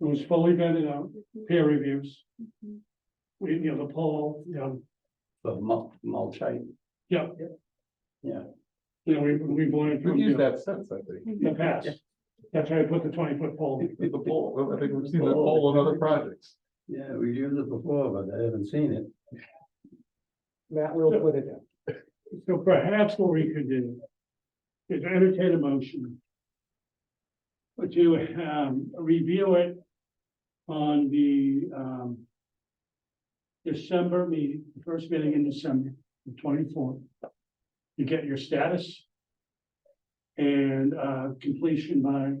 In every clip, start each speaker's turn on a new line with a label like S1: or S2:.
S1: It was fully vetted out, peer reviews,
S2: Mhm.
S1: we, you know, the poll, you know,
S3: of mul- multi.
S1: you know, we, we've learned
S4: We've
S1: from
S4: used
S1: the
S4: that since, I think.
S1: the past. That's why I put the twenty foot pole.
S4: The poll, I think we've seen that poll on other projects.
S3: Yeah, we've used it before, but I haven't seen it.
S5: Matt will put it in.
S1: So perhaps what we could do is entertain a motion. To um review it on the um. December meeting, the first meeting in December, the twenty-fourth. You get your status. And uh completion by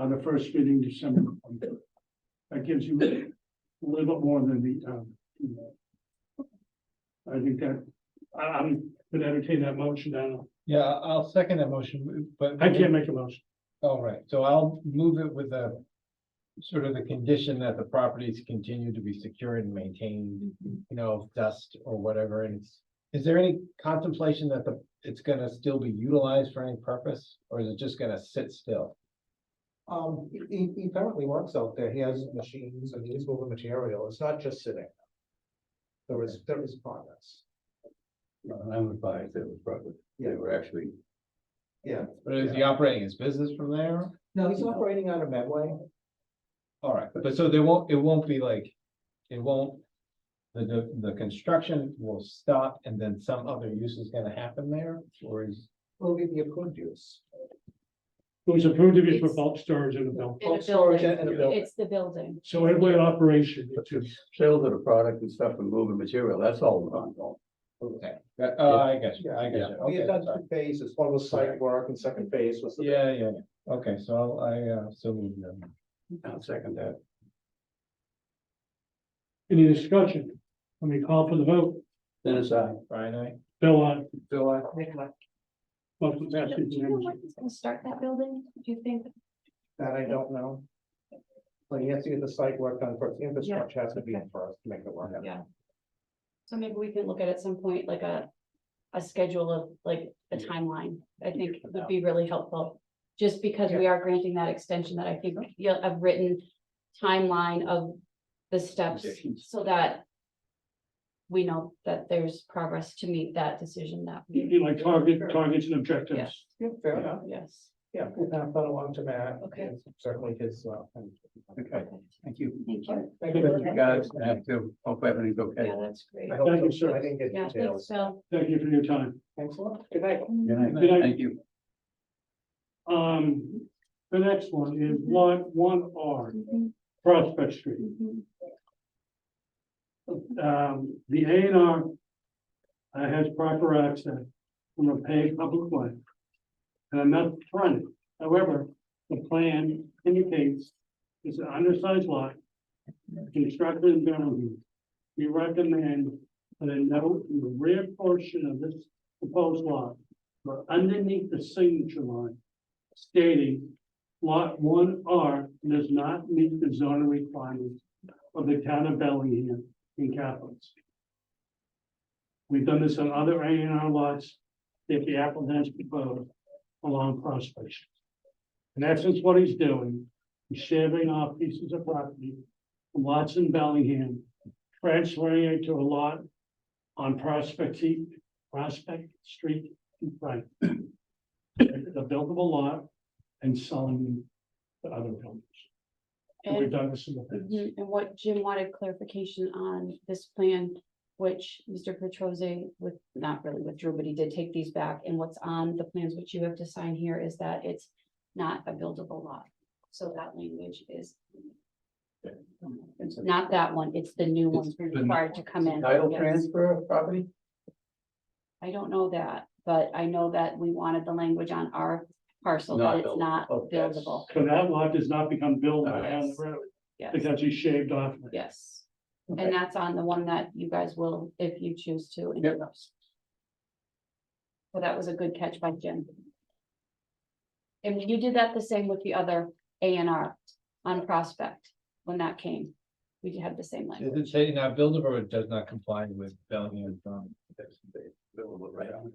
S1: uh the first meeting December. 23rd. That gives you a little bit more than the um. you know. I think that I, I'm gonna entertain that motion, Donna.
S5: Yeah, I'll second that motion, but.
S1: I can't make a motion.
S5: All right, so I'll move it with a sort of the condition that the properties continue to be secured and maintained, you know, of dust or whatever, and it's. Is there any contemplation that the, it's gonna still be utilized for any purpose, or is it just gonna sit still?
S6: Um, he, he apparently works out there. He has machines and he's moving material. It's not just sitting. There is, there is progress.
S3: And I would buy it, it was probably, they were actually,
S5: Or is he operating his business from there?
S6: No, he's operating out of Medway.
S5: All right, but so there won't, it won't be like, it won't. The, the, the construction will stop and then some other use is gonna happen there, or is?
S6: Will be the approved use.
S1: It was approved to be for bulk storage in the bill.
S2: In a
S6: Bulk storage
S2: building.
S6: and a building.
S2: It's the building.
S1: So it went operation to
S3: sales of the product and stuff and moving material, that's all ongoing.
S6: Okay.
S5: Oh, I got you, I got
S3: Yeah.
S5: you.
S6: We
S5: Okay,
S6: had done
S5: sorry.
S6: two phases. One was site work and second phase was. the-
S5: Yeah, yeah, yeah. Okay, so I'll- I, uh, so moved them.
S3: I'll second that.
S1: any discussion. Let me call for the vote.
S3: Then it's uh, I.
S5: Brian, I,
S1: Bill on.
S5: Bill, I.
S1: Motion
S2: Do
S1: passes
S2: you know
S1: unanimously.
S2: when he's gonna start that building? Do you think?
S6: That I don't know. But he has to get the site work done first. The infrastructure has to be in first to make it work.
S2: Yeah. So maybe we can look at at some point like a, a schedule of like a timeline, I think would be really helpful. Just because we are granting that extension that I think you'll have written timeline of the steps
S3: Conditions.
S2: so that. We know that there's progress to meet that decision that,
S1: You
S2: we
S1: you like target, targets and objectives.
S6: Yeah, fair enough.
S2: yes,
S6: Yeah, we'll pass that along to Matt.
S2: Okay.
S6: and Certainly his, uh. and-
S3: Okay, thank you.
S2: thank you.
S1: Thank
S6: Thank
S3: You guys have to, hope everything's okay.
S2: Yeah, that's great.
S6: I hope
S1: Thank you,
S6: so.
S1: sir.
S6: I didn't get
S2: Yeah, thanks,
S6: details.
S2: Phil.
S1: Thank you for your time.
S6: Thanks a lot. Good night.
S3: Good
S1: Good night.
S3: night, thank you.
S1: Um, the next one is lot one R,
S2: Mhm,
S1: Prospect Street.
S2: mhm.
S1: um, the A and R. Uh, has proper access from a paved public way. And I'm not fronting, however, the plan indicates it's an undersized lot. Constructed in Bellevue. We recommend that a note in the rear portion of this proposed lot, or underneath the signature line. Stating lot one R does not meet the zoning requirements of the town of Bellingham in capitals. We've done this on other A and R lots that the applicant has proposed along Prospect. Street. In essence, what he's doing, he's shaving off pieces of property, from lots in Bellingham, transferring it to a lot on Prospect, Street- Prospect Street in front. It's a buildable lot and selling to other builders. And We've
S2: And
S1: done this in the past.
S2: Mhm, And what Jim wanted clarification on this plan, which Mr. Petrosi with, not really withdrew, but he did take these back. And what's on the plans which you have to sign here is that it's not a buildable lot. So that language is. It's not that one, it's the new ones we're
S3: the new
S2: required to come in.
S3: Title
S2: Yes.
S3: transfer of property?
S2: I don't know that, but I know that we wanted the language on our parcel,
S3: Not
S2: that it's
S3: buildable.
S2: not
S3: Oh, yes.
S2: buildable.
S1: So that lot does not become buildable down the
S2: Yes.
S1: road.
S2: Yes.
S1: Because he shaved off.
S2: Yes.
S3: Okay.
S2: And that's on the one that you guys will, if you choose to. endorse. So that was a good catch by Jim. And you did that the same with the other A and R on Prospect when that came. We had the same language.
S5: Is it saying now buildable or it does not comply with Bellingham? um, zoning?
S3: That's- they- they were right on.